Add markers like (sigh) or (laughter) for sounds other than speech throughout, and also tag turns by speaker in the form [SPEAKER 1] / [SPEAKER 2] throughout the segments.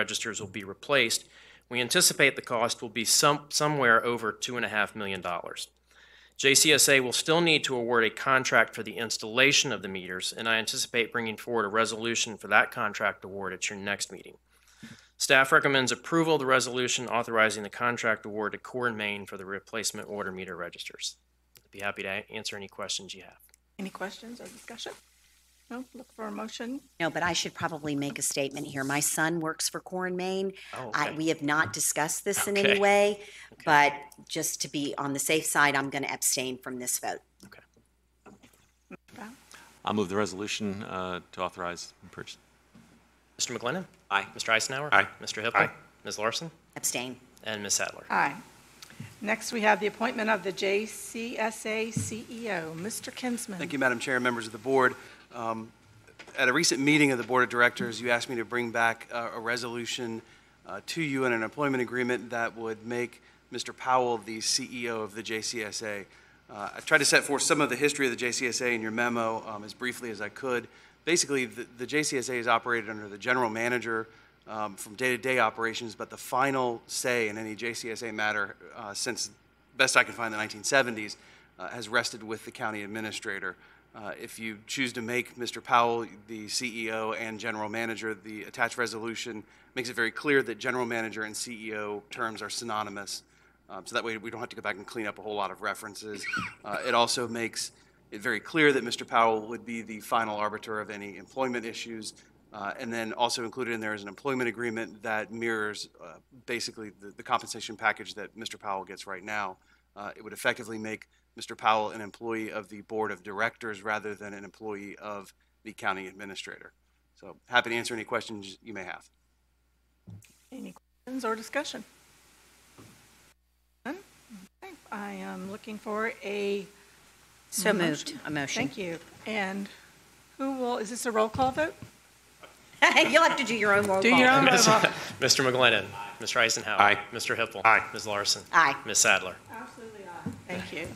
[SPEAKER 1] registers will be replaced. We anticipate the cost will be some, somewhere over two and a half million dollars. JCSA will still need to award a contract for the installation of the meters, and I anticipate bringing forward a resolution for that contract award at your next meeting. Staff recommends approval of the resolution authorizing the contract award to Core and Main for the replacement water meter registers. I'd Be happy to a- answer any questions you have.
[SPEAKER 2] Any questions or discussion? No, look for a motion.
[SPEAKER 3] No, but I should probably make a statement here. My son works for Core and Maine.
[SPEAKER 1] Oh,
[SPEAKER 3] I,
[SPEAKER 1] okay.
[SPEAKER 3] we have not discussed this in
[SPEAKER 1] Okay.
[SPEAKER 3] any way, but just to be on the safe side, I'm going to abstain from this vote.
[SPEAKER 4] I'll move the resolution uh, to authorize purchase.
[SPEAKER 1] Mr. McGlinnan?
[SPEAKER 4] Aye.
[SPEAKER 1] Mr. Eisenhower?
[SPEAKER 4] Aye.
[SPEAKER 1] Mr. Hippel?
[SPEAKER 4] Aye.
[SPEAKER 1] Ms. Larson?
[SPEAKER 3] Abstain.
[SPEAKER 1] And Ms. Sadler?
[SPEAKER 2] Aye. Next, we have the appointment of the JCSA CEO, Mr. E Kinsman.
[SPEAKER 5] Thank you, Madam Chair, members of the board. Um, At a recent meeting of the Board of Directors, you asked me to bring back uh, a resolution uh, to you and an employment agreement that would make Mr. Powell the CEO of the JCSA. Uh, I tried to set forth some of the history of the JCSA in your memo um, as briefly as I could. Basically, the the JCSA is operated under the general manager um, from day-to-day operations, but the final say in any JCSA matter uh, since best I can find, the 1970s, uh, has rested with the county administrator. Uh, If you choose to make Mr. Powell the CEO and general manager, the attached resolution makes it very clear that general manager and CEO terms are synonymous. Um, So that way, we don't have to go back and clean up a whole lot of references. Uh, It also makes it very clear that Mr. Powell would be the final arbiter of any employment issues. Uh, And then also included in there is an employment agreement that mirrors uh, basically the the compensation package that Mr. Powell gets right now. Uh, It would effectively make Mr. Powell an employee of the Board of Directors rather than an employee of the county administrator. So happy to answer any questions you may have.
[SPEAKER 2] Any questions or discussion? None? Okay, I am looking for a,
[SPEAKER 3] So moved. A motion.
[SPEAKER 2] thank you. And who will, is this a roll call vote?
[SPEAKER 3] (laughs) You'll have to do your own roll
[SPEAKER 2] Do
[SPEAKER 3] call.
[SPEAKER 2] your own roll call.
[SPEAKER 1] Mr. McGlinnan. Mr. Eisenhower.
[SPEAKER 4] Aye.
[SPEAKER 1] Mr. Hippel.
[SPEAKER 4] Aye.
[SPEAKER 1] Ms. Larson.
[SPEAKER 3] Aye.
[SPEAKER 1] Ms. Sadler.
[SPEAKER 2] Absolutely aye. Thank you.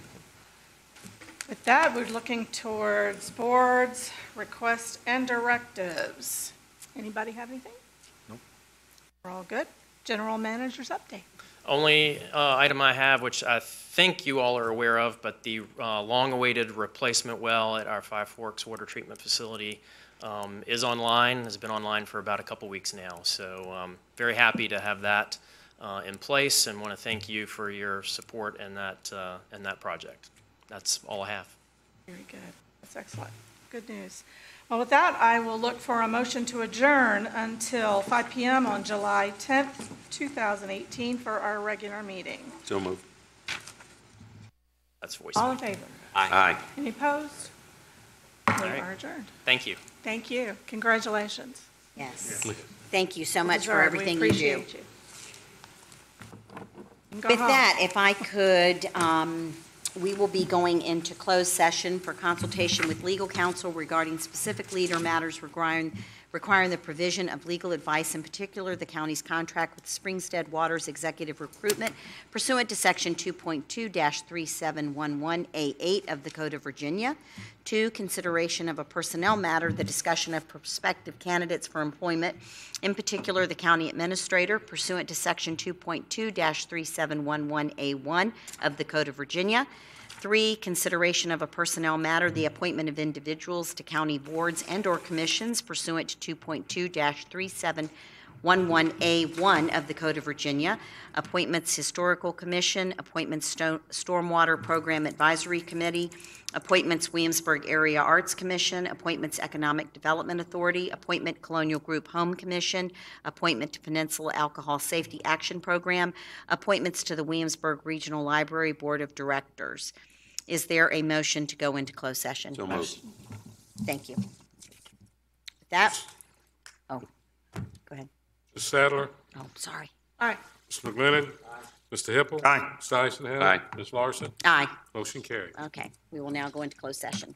[SPEAKER 2] With that, we're looking towards boards, requests, and directives. Anybody have anything? Nope. We're all good. General managers update.
[SPEAKER 1] Only uh, item I have, which I think you all are aware of, but the uh, long-awaited replacement well at our Five Forks Water Treatment Facility um, is online, has been online for about a couple weeks now. So um, very happy to have that uh, in place and want to thank you for your support in that, uh, in that project. That's all I have.
[SPEAKER 2] Very good. That's excellent. Good news. Well, with that, I will look for a motion to adjourn until 5 PM on July 10th, 2018 for our regular meeting.
[SPEAKER 4] So moved.
[SPEAKER 1] That's voice.
[SPEAKER 2] All in favor?
[SPEAKER 4] Aye.
[SPEAKER 2] Any opposed? We
[SPEAKER 1] right.
[SPEAKER 2] are adjourned.
[SPEAKER 1] Thank you.
[SPEAKER 2] Thank you. Congratulations.
[SPEAKER 3] Yes. Thank you so much for
[SPEAKER 2] deserve. We
[SPEAKER 3] everything you do.
[SPEAKER 2] appreciate you. You can go
[SPEAKER 3] With
[SPEAKER 2] home.
[SPEAKER 3] that, if I could, um, we will be going into closed session for consultation with legal counsel regarding specific leader matters requiring, requiring the provision of legal advice, in particular, the county's contract with Springstead Waters Executive Recruitment pursuant to Section 2.2-3711A8 of the Code of Virginia. Two, consideration of a personnel matter, the discussion of prospective candidates for employment, in particular, the county administrator pursuant to Section 2.2-3711A1 of the Code of Virginia. Three, consideration of a personnel matter, the appointment of individuals to county boards and/or commissions pursuant to 2.2-3711A1 of the Code of Virginia, appointments Historical Commission, appointments Sto- Stormwater Program Advisory Committee, appointments Williamsburg Area Arts Commission, appointments Economic Development Authority, appointment Colonial Group Home Commission, appointment to Peninsula Alcohol Safety Action Program, appointments to the Williamsburg Regional Library Board of Directors. Is there a motion to go into closed session?
[SPEAKER 4] So moved.
[SPEAKER 3] Thank you. With That, oh, go ahead.
[SPEAKER 6] Ms. Sadler,
[SPEAKER 3] Oh, sorry.
[SPEAKER 2] All right.
[SPEAKER 6] Ms. McGlinnan. Mr. Hippel. Aye. Mr. Eisenhower.
[SPEAKER 4] Aye.
[SPEAKER 6] Ms. Larson.
[SPEAKER 3] Aye,
[SPEAKER 6] Motion carried.
[SPEAKER 3] okay. We will now go into closed session.